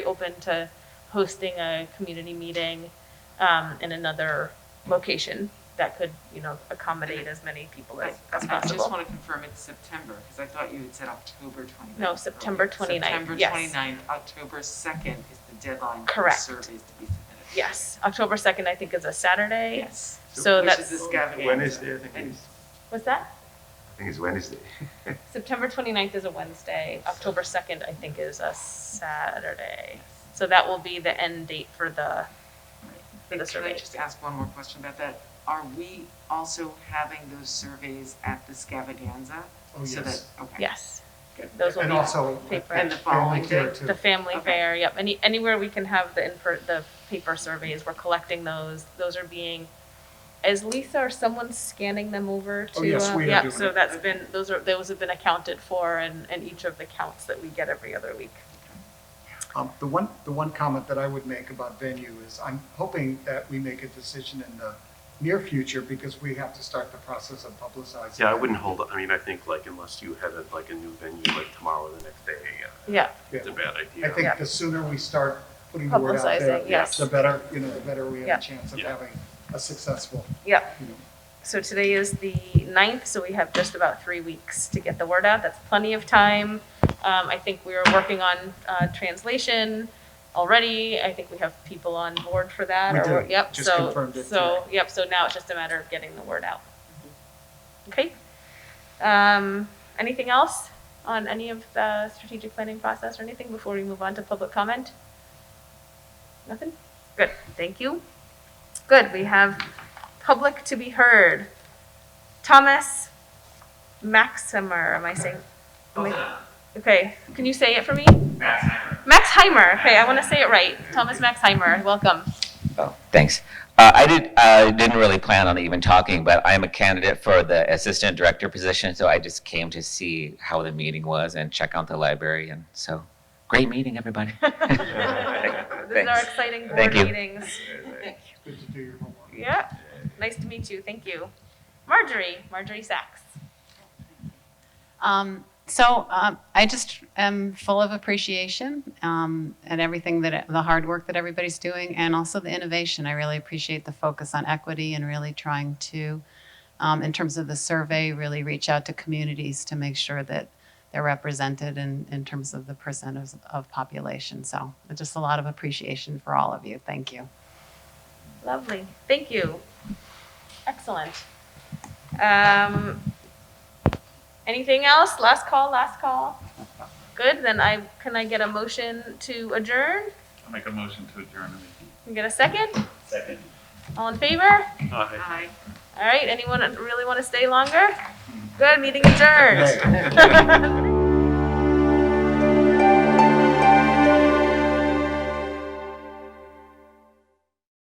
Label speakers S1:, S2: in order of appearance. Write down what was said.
S1: open to hosting a community meeting um, in another location that could, you know, accommodate as many people as, as
S2: I just
S1: possible.
S2: want to confirm it's September, because I thought you had said October 29th.
S1: No, September 29th,
S2: September
S1: yes.
S2: 29th, October 2nd is the deadline for
S1: Correct.
S2: surveys to be submitted.
S1: Yes, October 2nd, I think, is a Saturday.
S2: Yes.
S1: So
S2: Which is
S1: that's,
S2: this Gavin.
S3: Wednesday, I think it
S2: And-
S3: is.
S1: what's that?
S3: I think it's Wednesday.
S1: September 29th is a Wednesday. October 2nd, I think, is a Saturday. So that will be the end date for the, for the
S2: And Can I
S1: survey.
S2: just ask one more question about that? Are we also having those surveys at the Scavaganza?
S4: Oh,
S2: So that,
S4: yes.
S2: okay.
S1: yes. Those will
S4: And
S1: be
S4: also.
S1: paper.
S2: And the following
S4: Fair
S2: day.
S4: too.
S1: The family
S2: Okay.
S1: fair, yep, any, anywhere we can have the infer, the paper surveys, we're collecting those, those are being, is Lisa or someone scanning them over to?
S4: Oh, yes,
S1: uh,
S4: we are
S1: yep,
S4: doing
S1: So
S4: it.
S1: that's been, those are, those have been accounted for and, and each of the counts that we get every other week.
S4: Um, The one, the one comment that I would make about venue is I'm hoping that we make a decision in the near future because we have to start the process of publicizing.
S5: Yeah, I
S4: it.
S5: wouldn't hold, I mean, I think like unless you had a- like a new venue like tomorrow or the next day, uh,
S1: Yeah,
S4: Yeah.
S5: it's a bad
S4: I
S5: idea.
S4: think the sooner we start putting the word out
S1: Publicizing,
S4: there,
S1: yes.
S4: the better, you know, the better we
S1: Yeah.
S4: have a chance of
S5: Yeah.
S4: having a successful,
S1: yeah,
S4: you know,
S1: so today is the ninth, so we have just about three weeks to get the word out, that's plenty of time. Um, I think we are working on, uh, translation already, I think we have people on board for that,
S4: We
S1: or,
S4: do.
S1: we're- yep,
S4: Just
S1: so,
S4: confirmed it
S1: so, yep, so now it's just a matter of getting the word out.
S4: Mm-hmm.
S1: Okay, um, anything else on any of the strategic planning process or anything before we move on to public comment? Nothing? Good, thank you. Good, we have public to be heard. Thomas Maximer, am I saying? am I- Okay, can you say it for me? Max Heimer, okay, I want to say it right. Thomas Max Heimer, welcome.
S6: Oh, thanks. Uh, I did, I didn't really plan on even talking, but I'm a candidate for the assistant director position, so I just came to see how the meeting was and check out the library, and so, great meeting, everybody.
S1: This is our
S6: Thanks.
S1: exciting board
S6: Thank you.
S1: meetings.
S4: good to do your homework.
S1: Yeah, nice to meet you, thank you. Marjorie, Marjorie Sachs.
S7: Um, so um, I just am full of appreciation um, at everything that the hard work that everybody's doing, and also the innovation. I really appreciate the focus on equity and really trying to, um, in terms of the survey, really reach out to communities to make sure that they're represented in, in terms of the percent of, of population. So just a lot of appreciation for all of you. Thank you.
S1: Lovely, thank you. Excellent. Um, anything else? Last call, last call? Good, then I, can I get a motion to adjourn?
S8: I'll make a motion to adjourn the meeting.
S1: Can I get a second?
S8: Second.
S1: All in favor?
S5: Aye.
S2: Hi.
S1: All right, anyone really want to stay longer? Good, meeting adjourned.